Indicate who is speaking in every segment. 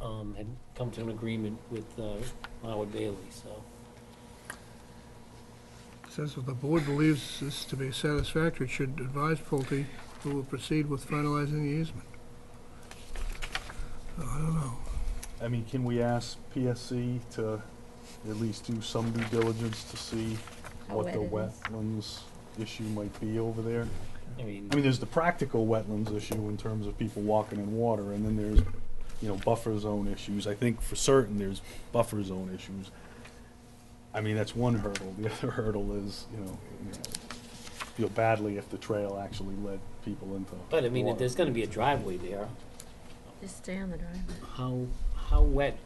Speaker 1: um, had come to an agreement with, uh, Howard Bailey, so.
Speaker 2: Says if the board believes this to be satisfactory, it should advise Pulte, who will proceed with finalizing the easement. So I don't know.
Speaker 3: I mean, can we ask PSC to at least do some due diligence to see
Speaker 4: How
Speaker 3: what the
Speaker 4: wet it is.
Speaker 3: wetlands issue might be over there?
Speaker 1: I mean,
Speaker 3: I mean, there's the practical wetlands issue in terms of people walking in water, and then there's, you know, buffer zone issues. I think for certain there's buffer zone issues. I mean, that's one hurdle. The other hurdle is, you know, you know, feel badly if the trail actually led people into.
Speaker 1: but I mean, if
Speaker 3: water.
Speaker 1: there's gonna be a driveway there,
Speaker 4: Just stay on the driveway.
Speaker 1: how, how wet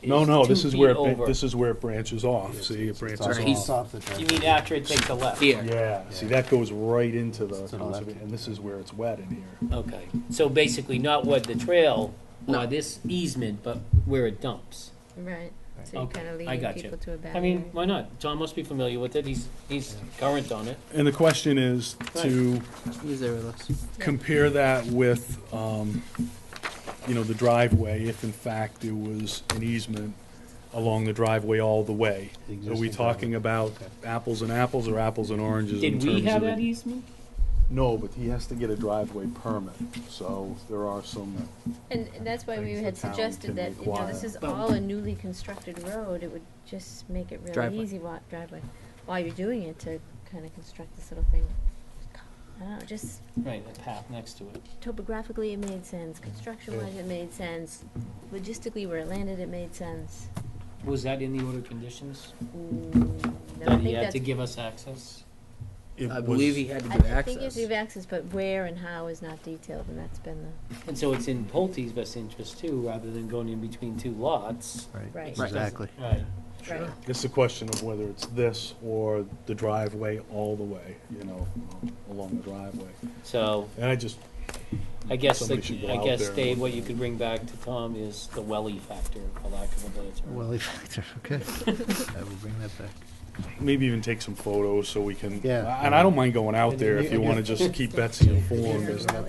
Speaker 1: is
Speaker 3: No, no,
Speaker 1: two
Speaker 3: this is
Speaker 1: feet
Speaker 3: where, it
Speaker 1: over?
Speaker 3: ba- this is where it branches off. See, it branches
Speaker 1: Sorry,
Speaker 3: off.
Speaker 1: he's- You mean after it takes a left? Yeah.
Speaker 3: Yeah, see, that goes right into the,
Speaker 5: It's to the left.
Speaker 3: conserva- and this is where it's wet in here.
Speaker 1: Okay, so basically not where the trail, or this easement, but where it dumps.
Speaker 4: Right. So you're
Speaker 1: Okay,
Speaker 4: kind
Speaker 1: I
Speaker 4: of leading
Speaker 1: gotcha.
Speaker 4: people to a bad
Speaker 1: I mean, why not? John must be familiar with it, he's, he's current on it.
Speaker 3: And the question is to compare that with, um, you know, the driveway, if in fact there was an easement along the driveway all the way. Are we talking about apples and apples or apples and oranges in
Speaker 1: Did
Speaker 3: terms
Speaker 1: we have
Speaker 3: of it?
Speaker 1: that easement?
Speaker 3: No, but he has to get a driveway permit, so there are some,
Speaker 4: And and that's why we
Speaker 3: Things
Speaker 4: had
Speaker 3: the town
Speaker 4: suggested
Speaker 3: can
Speaker 4: that, you know, this
Speaker 3: require.
Speaker 4: is
Speaker 1: But-
Speaker 4: all a newly constructed road, it would just make it really
Speaker 5: Driveway.
Speaker 4: easy wa- driveway, while you're doing it, to kind of construct this little thing. I don't know, just
Speaker 1: Right, the path next to it.
Speaker 4: topographically it made sense, construction wise it made sense, logistically where it landed it made sense.
Speaker 1: Was that in the order of conditions?
Speaker 4: Mm, no, I
Speaker 1: That he
Speaker 4: think
Speaker 1: had
Speaker 4: that's,
Speaker 1: to give us access?
Speaker 3: it
Speaker 5: I believe he
Speaker 3: was,
Speaker 5: had to
Speaker 4: I I think
Speaker 5: give
Speaker 4: you have
Speaker 5: access.
Speaker 4: to give access, but where and how is not detailed, and that's been the,
Speaker 1: And so it's in Pulte's best interest too, rather than going in between two lots.
Speaker 4: Right.
Speaker 5: Exactly.
Speaker 1: Right.
Speaker 4: right,
Speaker 3: it's a question of whether it's this or the driveway all the way, you know, along the driveway.
Speaker 1: So
Speaker 3: And I just,
Speaker 1: I guess,
Speaker 3: Somebody
Speaker 1: the-
Speaker 3: should go
Speaker 1: I
Speaker 3: out
Speaker 1: guess,
Speaker 3: there and
Speaker 1: Dave,
Speaker 3: look
Speaker 1: what
Speaker 3: at
Speaker 1: you
Speaker 3: it.
Speaker 1: could bring back to Tom is the welly factor, for lack of a better term.
Speaker 6: Welly factor, okay. I will bring that back.
Speaker 3: maybe even take some photos so we can,
Speaker 6: Yeah.
Speaker 3: and I don't mind going out there if you wanna just keep Betsy informed. as-
Speaker 4: so I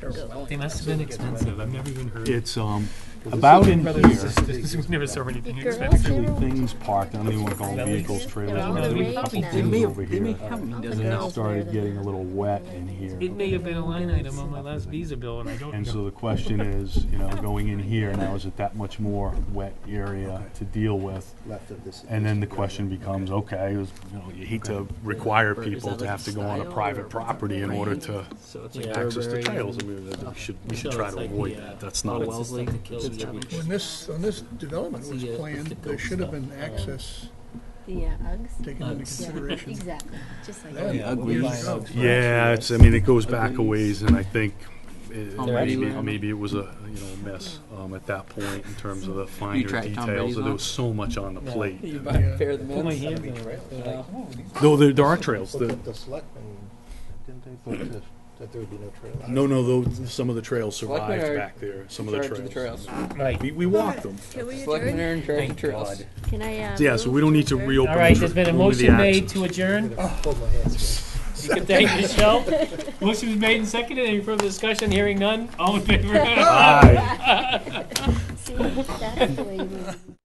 Speaker 4: can go.
Speaker 7: They must have been expensive. I've never even heard.
Speaker 3: It's, um, about in here,
Speaker 7: We've never saw anything
Speaker 4: Girls,
Speaker 7: expensive.
Speaker 3: actually
Speaker 4: they're all-
Speaker 3: things parked, I don't even wanna call them
Speaker 4: Bellies.
Speaker 3: vehicles, trailers,
Speaker 4: They're all
Speaker 3: but there were a
Speaker 4: the
Speaker 3: couple
Speaker 4: rage now.
Speaker 3: things
Speaker 4: They may-
Speaker 3: over here.
Speaker 4: All the
Speaker 3: And it
Speaker 4: girls wear
Speaker 3: started
Speaker 4: them
Speaker 3: getting
Speaker 4: now.
Speaker 3: a little wet in
Speaker 7: It
Speaker 3: here.
Speaker 7: may have been a line item on my last visa bill and I don't
Speaker 3: And
Speaker 7: know.
Speaker 3: so the question is, you know, going in here now, is it that much more wet area to deal with?
Speaker 6: Left of this.
Speaker 3: And then the question becomes, okay, is, you know, you hate to require
Speaker 5: Or is
Speaker 3: people
Speaker 5: that
Speaker 3: to
Speaker 5: like
Speaker 3: have
Speaker 5: a
Speaker 3: to go on a
Speaker 5: style or
Speaker 3: private property in order
Speaker 4: range?
Speaker 3: to
Speaker 5: So it's
Speaker 1: like Yeah.
Speaker 3: access the trails. I mean, that- we should, we should
Speaker 1: So
Speaker 3: try
Speaker 1: it's
Speaker 3: to
Speaker 1: like
Speaker 3: avoid
Speaker 1: the, uh,
Speaker 3: that. That's
Speaker 1: Oh,
Speaker 3: not,
Speaker 1: it's the
Speaker 5: Wellesley.
Speaker 1: stuff that kills
Speaker 5: It's
Speaker 1: you.
Speaker 5: rubbish.
Speaker 2: When this, when this development was
Speaker 1: See, uh,
Speaker 2: planned,
Speaker 1: the
Speaker 2: there
Speaker 1: goat
Speaker 2: should have
Speaker 1: stuff. Oh.
Speaker 2: been access
Speaker 4: The uh, Uggs?
Speaker 2: taken into
Speaker 1: Uggs.
Speaker 2: consideration.
Speaker 4: Exactly, just like.
Speaker 2: then,
Speaker 5: Yeah,
Speaker 2: what
Speaker 5: Uggs.
Speaker 2: years
Speaker 5: Buying
Speaker 2: ago.
Speaker 3: yeah, it's, I mean, it goes back a
Speaker 5: Agrees.
Speaker 3: ways and I think uh,
Speaker 5: Brady's
Speaker 3: maybe,
Speaker 5: land.
Speaker 3: maybe it was a, you know, a mess, um, at that point in terms of the finer
Speaker 5: tried
Speaker 3: details.
Speaker 5: Tom Brady's
Speaker 3: There
Speaker 5: land?
Speaker 3: was so much on the
Speaker 1: No.
Speaker 3: plate.
Speaker 5: You buy a pair of the
Speaker 7: Put my
Speaker 5: mints.
Speaker 7: hands in it, right? They're like, oh, these-
Speaker 3: Though there, there are trails.
Speaker 6: Look
Speaker 3: The,
Speaker 6: at the selectmen, didn't they put that, that there would be no trail? out?
Speaker 3: no, no, though, some of the trails
Speaker 5: Selectmen
Speaker 3: survived
Speaker 5: are
Speaker 3: back there, some of
Speaker 5: Charge
Speaker 3: the
Speaker 5: of the
Speaker 3: trails.
Speaker 5: trails.
Speaker 1: Right.
Speaker 3: We, we walked them.
Speaker 4: Can we
Speaker 5: Selectmen
Speaker 4: adjourn?
Speaker 5: are in charge of
Speaker 1: Thank
Speaker 5: trails.
Speaker 4: Can I, uh?
Speaker 3: Yeah, so we don't need to
Speaker 4: move
Speaker 3: reopen.
Speaker 1: All right, there's been a
Speaker 3: only the
Speaker 1: motion made
Speaker 3: access.
Speaker 1: to adjourn.
Speaker 6: Hold my hands.
Speaker 1: You can thank Michelle. Motion was made and seconded. Any further discussion? Hearing none. All in favor?
Speaker 3: Aye.
Speaker 4: adjourn? See, that's the way you move.